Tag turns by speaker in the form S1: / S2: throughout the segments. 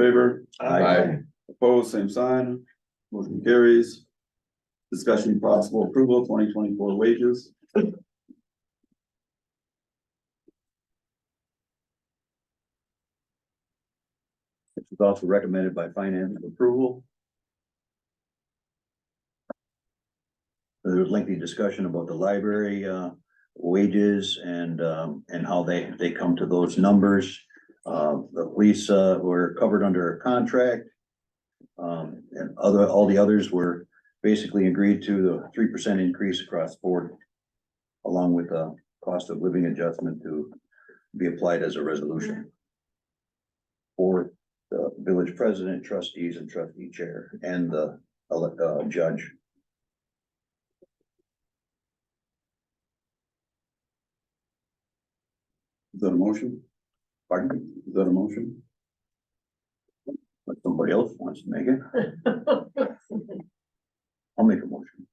S1: Favor?
S2: Aye.
S1: Opposed, same sign. Motion carries. Discussion possible approval twenty twenty-four wages. Which is also recommended by finance for approval.
S3: There was lengthy discussion about the library uh wages and um and how they they come to those numbers. Uh, the police uh were covered under a contract. Um, and other, all the others were basically agreed to the three percent increase across the board. Along with the cost of living adjustment to be applied as a resolution. For the village president, trustees and trustee chair and the elect uh judge.
S1: Is that a motion?
S3: Pardon?
S1: Is that a motion?
S3: But somebody else wants to make it. I'll make a motion.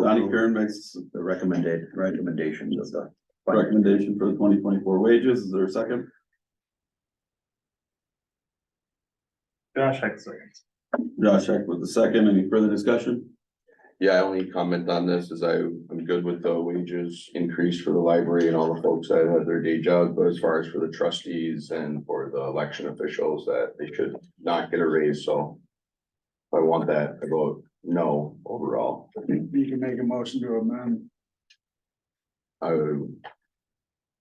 S1: Donnie Karen makes
S3: The recommended recommendations of the.
S1: recommendation for the twenty twenty-four wages. Is there a second?
S4: Josh Hexler.
S1: Josh Heck with the second. Any further discussion?
S2: Yeah, I only comment on this is I, I'm good with the wages increase for the library and all the folks that have their day jobs, but as far as for the trustees and for the election officials, that they should not get a raise, so. if I want that, I vote no overall.
S5: You can make a motion to amend.
S2: I would.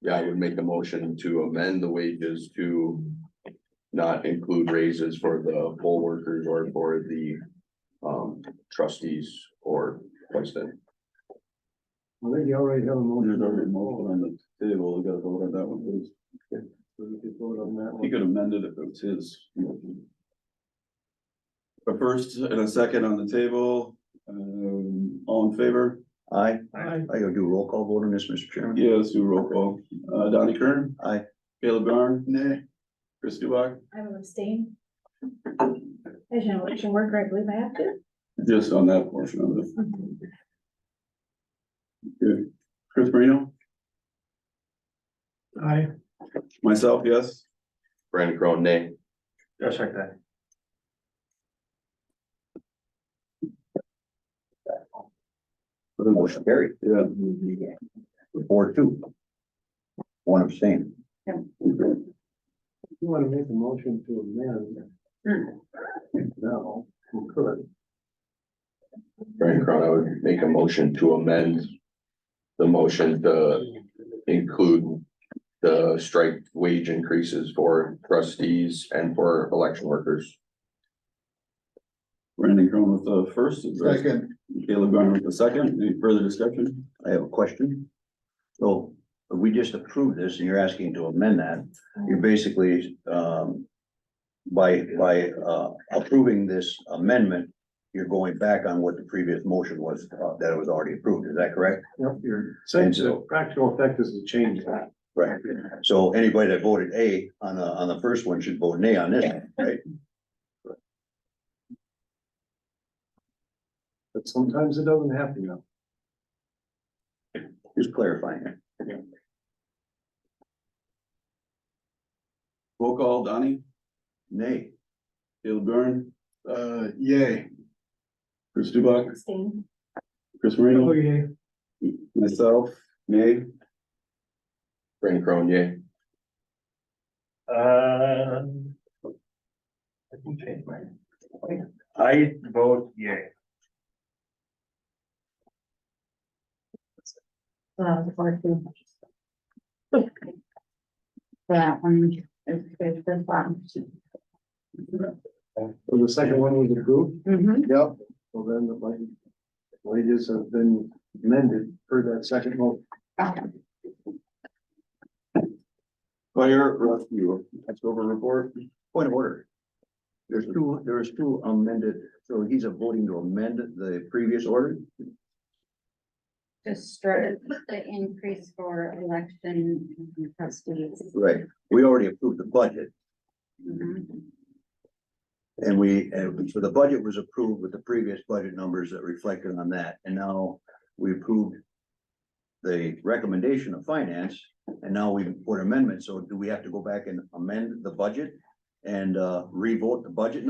S2: Yeah, I would make a motion to amend the wages to not include raises for the poll workers or for the. Um, trustees or president.
S5: I think you already have a
S1: There's already a
S5: motion.
S1: motion on the table. We gotta vote on that one, please.
S5: We could vote on that
S1: He
S5: one.
S1: could amend it if it was his. motion. A first and a second on the table, um, all in favor?
S3: I,
S4: Aye.
S3: I go do a roll call vote on this, Mr. Chairman.
S1: Yeah, let's do roll call. Uh, Donnie Kern?
S3: Aye.
S1: Caleb Garn? Nay. Chris Dubak?
S6: I will abstain. As an election worker, I believe I have to.
S1: Just on that portion of it. Good. Chris Marino?
S4: Aye.
S1: Myself, yes.
S2: Brandon Crowe, nay.
S4: Josh Hexler.
S3: Motion carried,
S1: Yeah.
S3: four two. One abstain.
S5: If You wanna make a motion to amend? No, you could.
S2: Brian Crown, I would make a motion to amend the motion to include the strike wage increases for trustees and for election workers.
S1: Brandon Crown with the first.
S5: Second.
S1: Caleb Garn with the second. Any further discussion?
S3: I have a question. So we just approved this and you're asking to amend that. You're basically, um, by, by, uh, approving this amendment, you're going back on what the previous motion was, uh, that was already approved. Is that correct?
S5: Yep, you're saying the practical effect is to change that.
S3: Right. So anybody that voted A on the, on the first one should vote nay on this, one, right?
S5: But sometimes it doesn't happen now.
S3: Just clarifying. it.
S1: Roll call, Donnie?
S3: Nay.
S1: Caleb Garn?
S5: Uh, yay.
S1: Chris Dubak?
S6: Abstain.
S1: Chris
S5: Oh,
S1: Marino? Myself, nay.
S2: Brian Crown, yay.
S4: Um. I can change mine. I vote yay.
S7: Well, uh, the fourth one. That one is good for fun.
S5: So the second one was approved?
S7: Mm-hmm.
S5: Yep. Well, then the wa- wages have been amended for that second motion.
S1: Fire rescue, that's over report.
S3: Point of order. There's two, there's two amended, so he's a voting to amend the previous order?
S7: Just started the increase for election trustees.
S3: Right. We already approved the budget
S7: Mhm.
S3: and we, and so the budget was approved with the previous budget numbers that reflected on that. And now we approved the recommendation of finance and now we put amendments. So do we have to go back and amend the budget? and, uh, revote the budget